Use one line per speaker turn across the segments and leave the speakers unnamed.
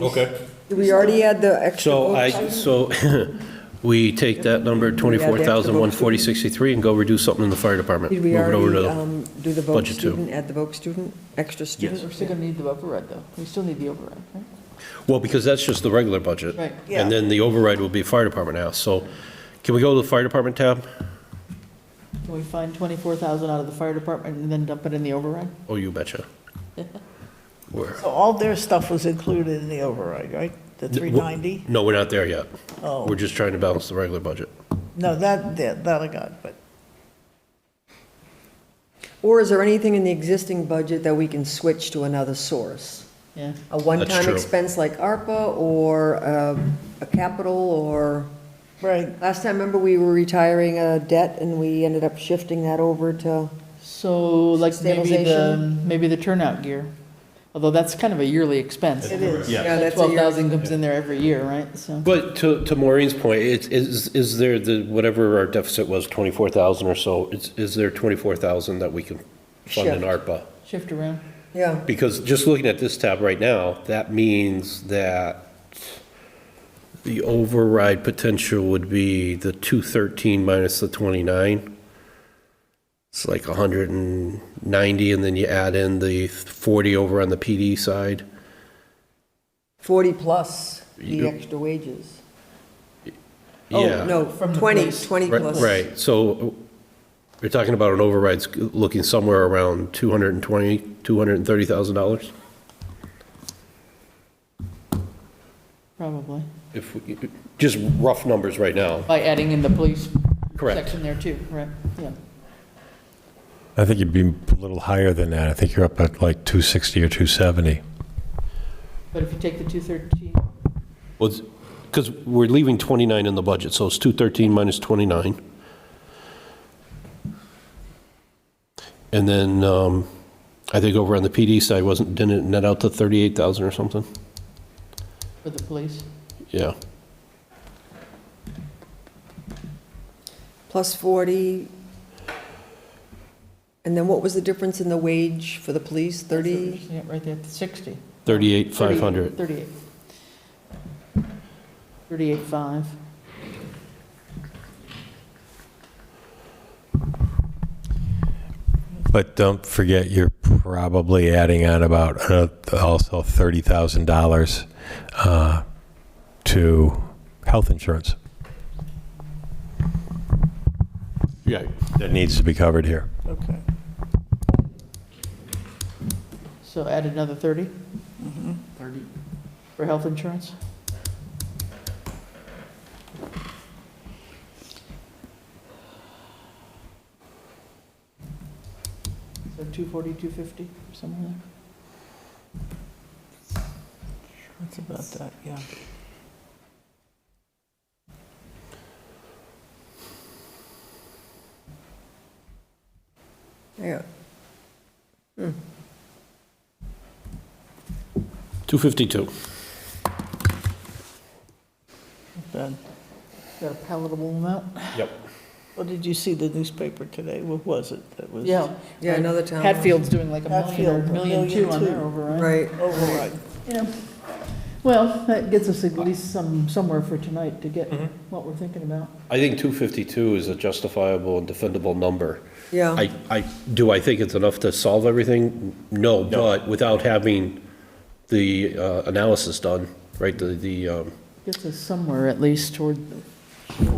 Okay.
Did we already add the extra
So I,
votes?
so we take that number, 24,140.63, and go reduce something in the fire department.
Did we
Move it over to
already
the-
um, do the vote
budget two.
student, add the vote student, extra student?
We're still gonna need the override, though. We still need the override, right?
Well, because that's just the regular budget.
Right.
uh, Yeah.
And then the override will be fire department now. So can we go to the fire department tab?
Can we find twenty-four thousand out of the fire department and then dump it in the override?
Oh, you betcha. Where?
So all their stuff was included in the override, right? The 390?
No, we're not there yet.
Oh.
We're just trying to balance the regular budget.
No, that, that that I got, but
Or is there anything in the existing budget that we can switch to another source?
Yeah.
A one-time
true.
expense like ARPA or uh, a capital or,
Right,
last time, remember, we were retiring a debt and we ended up shifting that over to,
So like maybe the,
Stabilization.
maybe the turnout gear, although that's kind of a yearly expense.
it is.
Yeah.
yeah, that's a
Twelve
year.
thousand comes in there every year, right? So,
But to, to Maureen's point, it's, is, is there the, whatever our deficit was, 24,000 or so, is, is there 24,000 that we can fund in
Shift.
ARPA?
shift around.
Yeah,
Because just looking at this tab right now, that means that the override potential would be the 213 minus the 29. It's like 190, and then you add in the 40 over on the PD side.
40 plus the
You-
extra wages.
Yeah.
Oh, no,
From the
20,
police.
20
Right-
plus.
Right, so you're talking about an override's looking somewhere around 220, $230,000?
Probably,
If, we- just rough numbers right now.
by adding in the police
Correct.
section there too, right? Yeah.
I think you'd be a little higher than that. I think you're up at like 260 or 270.
But if you take the two thirteen,
Well, because we're leaving 29 in the budget, so it's 213 minus 29. And then, um, I think over on the PD side, wasn't, didn't it net out to 38,000 or something?
for the police,
Yeah.
Plus 40. And then what was the difference in the wage for the police, 30?
yeah, right there, sixty.
38,500.
Thirty-eight. Thirty-eight five.
But don't forget, you're probably adding on about uh, also $30,000 uh, to health insurance
Yeah.
that needs to be covered here.
Okay.
So add another 30?
Mm-hmm.
30. For health insurance? So 240, 250, somewhere there?
That's about that, yeah.
Yeah.
252.
not bad.
Is that a palatable amount?
Yep.
Well, did you see the newspaper today? What was it that was?
Yeah.
Yeah, another town.
Hatfield's doing like a million or
Hatfield, a
million
million
two on their
two.
override.
Right.
Override.
Yeah. Well, that gets us at least some, somewhere for tonight to get
Mm-hmm.
what we're thinking about.
I think 252 is a justifiable and defendable number.
Yeah,
I, I, do I think it's enough to solve everything? No, but without having the uh, analysis done, right, the, the, um,
Gets us somewhere at least toward,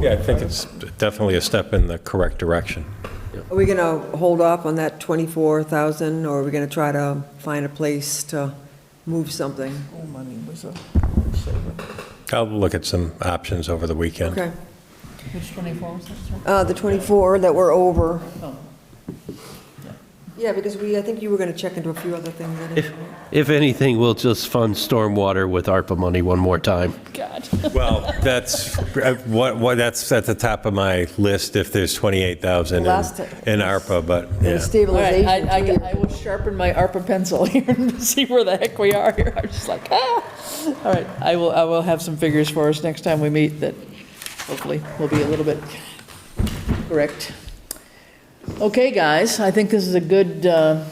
Yeah, I think it's definitely a step in the correct direction.
are we going to hold off on that 24,000, or are we going to try to find a place to move something?
All money was a saver.
I'll look at some options over the weekend.
Okay,
which 24 was that, sorry?
Uh, the 24 that we're over.
Oh.
Yeah, because we, I think you were going to check into a few other things. I didn't-
If anything, we'll just fund stormwater with ARPA money one more time.
Well, that's, uh, what, what, that's at the top of my list if there's 28,000 in
Last ti-
in ARPA, but,
And
All right,
yeah.
I,
Stabilization, too.
I, I will sharpen my ARPA pencil here and see where the heck we are here. I'm just like, ah. All right, I will, I will have some figures for us next time we meet that hopefully will be a little bit correct. Okay, guys, I think this is a good, uh,